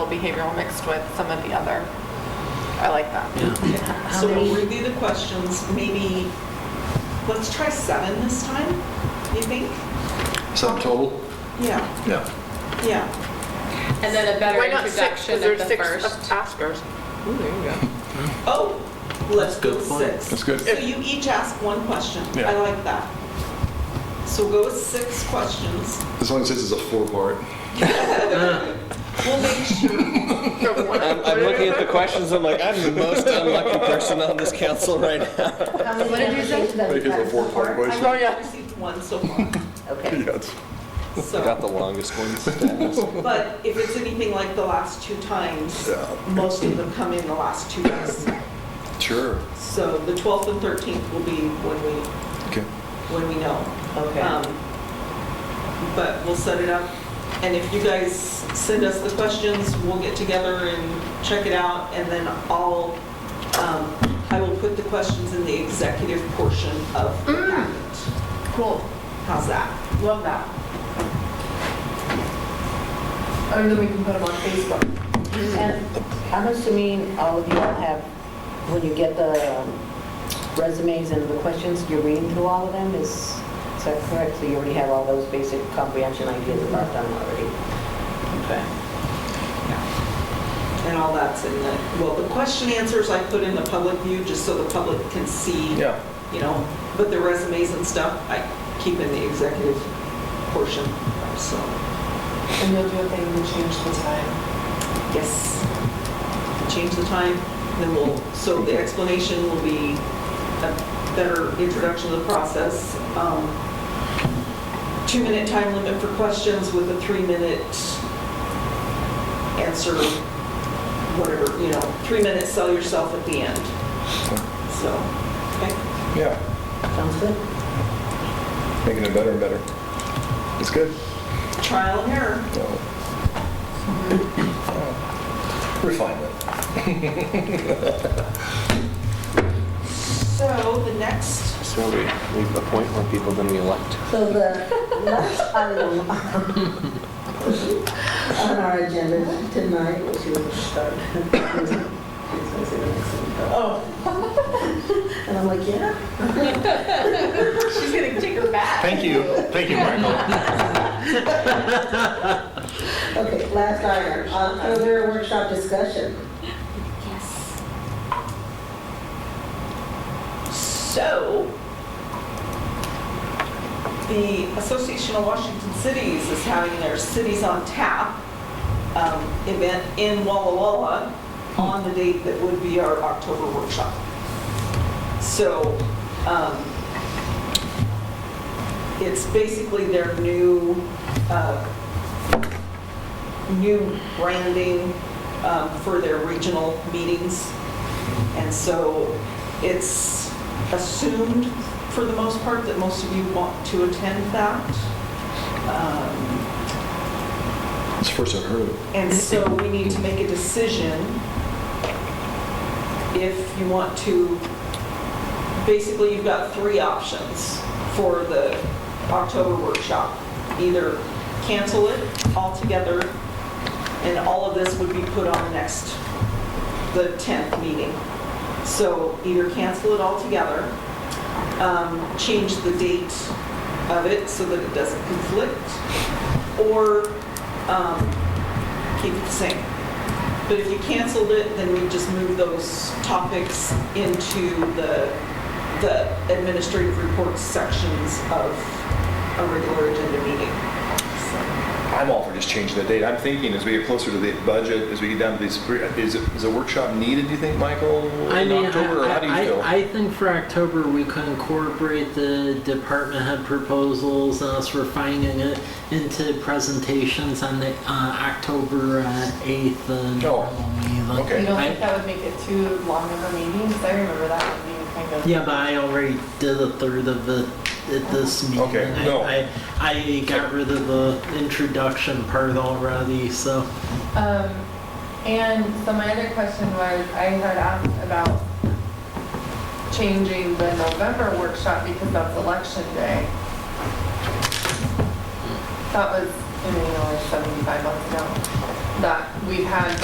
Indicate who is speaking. Speaker 1: behavioral mixed with some of the other. I like that.
Speaker 2: So we'll review the questions, maybe, let's try seven this time, you think?
Speaker 3: Sum total?
Speaker 2: Yeah,
Speaker 3: Yeah.
Speaker 2: yeah.
Speaker 4: And then a better
Speaker 1: Why not six?
Speaker 4: introduction
Speaker 1: Because there's
Speaker 4: of the
Speaker 1: six
Speaker 4: first.
Speaker 1: Askers. Ooh, there you go.
Speaker 2: Oh, let's go with
Speaker 5: point.
Speaker 2: six.
Speaker 3: That's good.
Speaker 2: So you each ask one question. I
Speaker 3: Yeah.
Speaker 2: like that. So we'll go with six questions.
Speaker 3: As long as this is a four-part.
Speaker 2: We'll make sure,
Speaker 5: I'm, I'm looking at the questions. I'm like, I'm the most unlucky person on this council right now.
Speaker 6: What did you say?
Speaker 3: Make it a four-part
Speaker 2: I
Speaker 3: question.
Speaker 1: Oh,
Speaker 2: only
Speaker 1: yeah.
Speaker 2: received one so far,
Speaker 6: Okay.
Speaker 3: Yes.
Speaker 5: I got
Speaker 2: so.
Speaker 5: the longest ones. to ask.
Speaker 2: But if it's anything like the last two times,
Speaker 3: Yeah.
Speaker 2: most of them come in the last two days.
Speaker 3: Sure.
Speaker 2: So the 12th and 13th will be when we,
Speaker 3: Okay.
Speaker 2: when we know.
Speaker 6: Okay.
Speaker 2: Um, But we'll set it up, and if you guys send us the questions, we'll get together and check it out, and then I'll, um, I will put the questions in the executive portion of the packet.
Speaker 6: Cool.
Speaker 2: How's that?
Speaker 6: Mm. Love that. And Oh, then we can put them on Facebook.
Speaker 7: And I'm assuming all of you all have, when you get the um, resumes and the questions, you're reading through all of them, is is that correct? So you already have all those basic comprehension ideas about them already? Okay.
Speaker 2: And all that's in the, well, the question answers I put in the public view, just so the public can see.
Speaker 5: Yeah.
Speaker 2: You know, but the resumes and stuff, I keep in the executive portion, so.
Speaker 6: And you'll do a thing to change the time.
Speaker 2: Yes. Change the time, then we'll, so the explanation will be a better introduction to the process. Um, Two-minute time limit for questions with a three-minute answer, whatever, you know, three minutes, sell yourself at the end. So, okay,
Speaker 3: Yeah.
Speaker 7: Sounds good?
Speaker 3: Making it better and better. It's good.
Speaker 2: trial and error.
Speaker 3: Refinement.
Speaker 2: So the next,
Speaker 5: So we, we appoint more people than we elect.
Speaker 7: So the last item on our agenda tonight, which you would start. Oh. And I'm like, yeah?
Speaker 1: She's gonna take her back.
Speaker 8: Thank you, thank you, Michael.
Speaker 7: Okay, last item, uh, further workshop discussion.
Speaker 2: So, the Association of Washington Cities is having their Cities on Tap um, event in Walla Walla on the date that would be our October workshop. So, um, it's basically their new, uh, new branding um, for their regional meetings. And so it's assumed, for the most part, that most of you want to attend that. Um,
Speaker 3: It's the first I've heard of it.
Speaker 2: And so we need to make a decision if you want to, basically, you've got three options for the October workshop. Either cancel it altogether, and all of this would be put on the next, the 10th meeting. So either cancel it altogether, um, change the date of it so that it doesn't conflict, or um, keep it the same. But if you canceled it, then we just move those topics into the, the administrative reports sections of a regular agenda meeting. So,
Speaker 8: I'm all for just changing the date. I'm thinking as we get closer to the budget, as we get down to these, three- is, is a workshop needed, do you think, Michael,
Speaker 9: I
Speaker 8: in
Speaker 9: mean,
Speaker 8: October, or
Speaker 9: I,
Speaker 8: how do you
Speaker 9: I-
Speaker 8: feel?
Speaker 9: I think for October, we could incorporate the department head proposals, and us refining it into presentations on the, uh, October uh, 8th. uh,
Speaker 8: Oh,
Speaker 9: meeting.
Speaker 8: okay.
Speaker 1: You don't think
Speaker 9: I-
Speaker 1: that would make it too long of a meeting? Because I remember that one being kind of.
Speaker 9: Yeah, but I already did a third of it at this meeting.
Speaker 8: Okay,
Speaker 9: I-
Speaker 8: no.
Speaker 9: I, I got rid of the introduction part already, so.
Speaker 1: Um, and so my other question was, I had asked about changing the November workshop because that's election day. That was, I mean, only 75 months ago, that we've had